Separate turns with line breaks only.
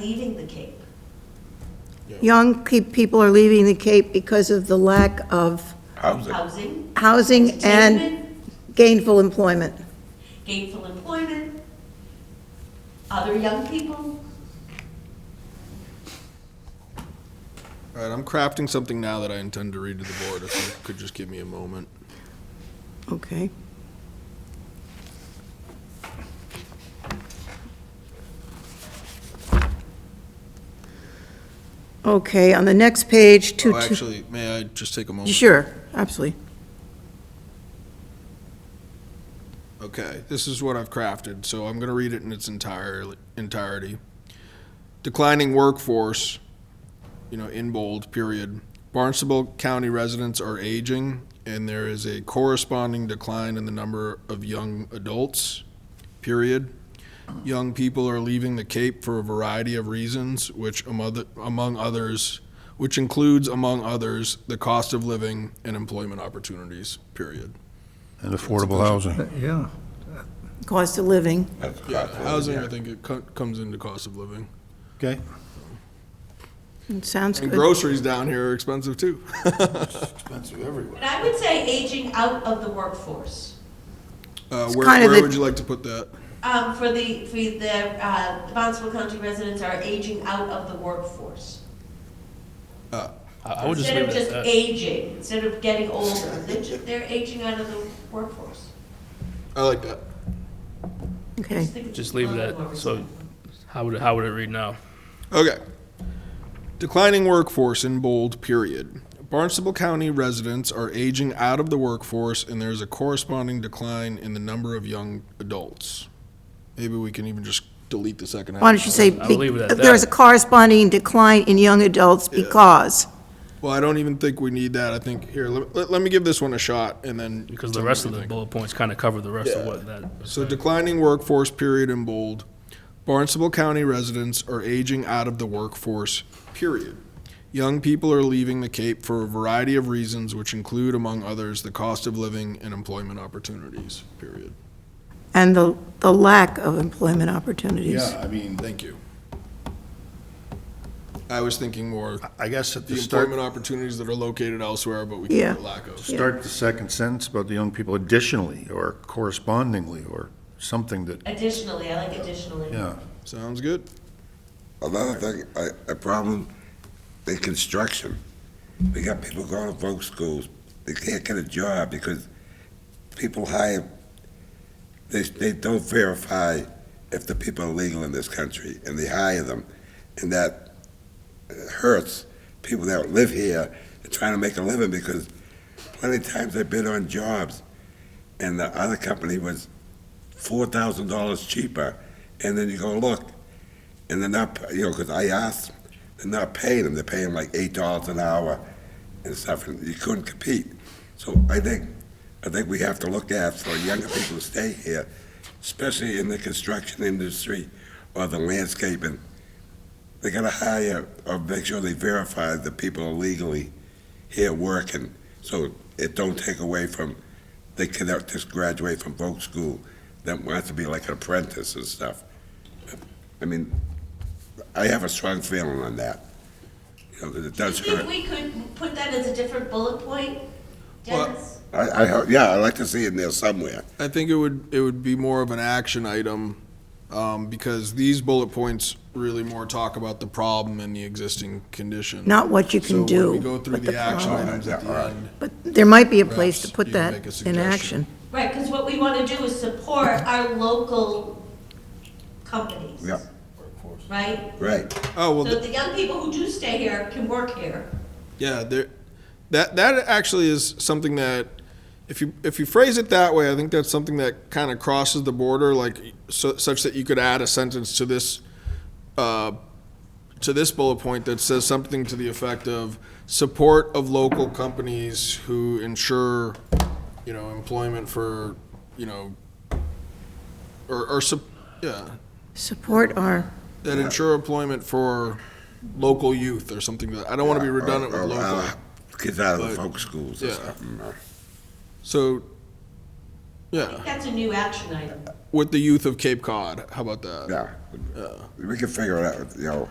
leaving the Cape.
Young pe- people are leaving the Cape because of the lack of
Housing.
Housing,
housing and
entertainment,
gainful employment.
gainful employment, other young people.
All right, I'm crafting something now that I intend to read to the board, if you could just give me a moment.
Okay. Okay, on the next page, two,
Oh,
two.
Actually, may I just take a moment?
Sure, absolutely.
Okay, this is what I've crafted, so I'm going to read it in its entire, entirety. Declining workforce, you know, in bold, period. Barnstable County residents are aging, and there is a corresponding decline in the number of young adults, period. Young people are leaving the Cape for a variety of reasons, which among other- among others, which includes, among others, the cost of living and employment opportunities, period.
And affordable housing.
Yeah,
Cost of living.
That's
Yeah,
cost of
housing, I
living.
think it co- comes into cost of living.
Okay.
It Sounds
And
good.
groceries down here are expensive too.
Expensive everywhere.
And I would say aging out of the workforce.
Uh,
It's
where
kind of
where
the-
would you like to put that?
Um, for the, for the, uh, the Bonneville County residents are aging out of the workforce.
Uh,
I I would just
Instead
leave
of
it
just
at that.
aging, instead of getting older, they're, ju- they're aging out of the workforce.
I like that.
Okay.
Just think it's
Just leave
a
it
little more
at, so
reasonable.
how would, it- how would it read now?
Okay. Declining workforce in bold period. Barnstable County residents are aging out of the workforce and there's a corresponding decline in the number of young adults. Maybe we can even just delete the second half.
Why don't you say,
I'll leave it at that.
there's a corresponding decline in young adults because?
Well, I don't even think we need that. I think, here, let, let- let me give this one a shot and then.
Because
tell
the
me
rest
what
of
you
the
think.
bullet points kind of cover the rest of
Yeah.
what that.
So declining workforce period in bold. Barnstable County residents are aging out of the workforce, period. Young people are leaving the Cape for a variety of reasons, which include, among others, the cost of living and employment opportunities, period.
And the, the lack of employment opportunities.
Yeah, I mean,
Thank you. I was thinking more
I guess at
the
the Uh, start,
employment opportunities that are located elsewhere, but we
Yeah.
can't lack of.
start the second sentence about the young people additionally, or correspondingly, or something that,
Additionally, I like additionally.
yeah.
Sounds good.
Another thing, a, a problem, in construction. We got people going to folk schools, they can't get a job because people hire, they, they don't verify if the people are legal in this country, and they hire them. And that hurts people that live here, and trying to make a living, because plenty of times I bid on jobs, and the other company was four thousand dollars cheaper, and then you go, look, and they're not, you know, because I asked, they're not paying them. They're paying like eight dollars an hour and stuff, and you couldn't compete. So I think, I think we have to look at for younger people to stay here, especially in the construction industry or the landscaping. They gotta hire or make sure they verify that people are legally here working, so it don't take away from they cannot just graduate from folk school that wants to be like an apprentice and stuff. I mean, I have a strong feeling on that. You know, 'cause it
Do you
does
think
hurt.
we could put that as a different bullet point,
Well,
Dennis?
I, I, hope- yeah, I'd like to see it in there somewhere.
I think it would, it would be more of an action item, um, because these bullet points really more talk about the problem and the existing condition.
Not what you
So
can
when
do.
we go through
but the
the action
problem.
items at the end.
But there might be a place to
Perhaps
put
you can
that
make a
in
suggestion.
action.
Right, because what we want to do is support our local companies.
Yeah.
Right?
Right.
Oh,
So
well, th-
the young people who do stay here can work here.
yeah, there, that, that actually is something that, if you, if you phrase it that way, I think that's something that kind of crosses the border, like, so, such that you could add a sentence to this, uh, to this bullet point that says something to the effect of support of local companies who ensure, you know, employment for, you know, or, or, sup- yeah,
Support our,
that ensure employment for local youth or something. that- I don't want to be redundant with
Or- or
local.
allow Kids out of the
But-
folk schools or
yeah.
something. or-
So
I think
Yeah,
that's a new action item.
with the youth of Cape Cod. How about that?
Yeah. We can figure it out, you know.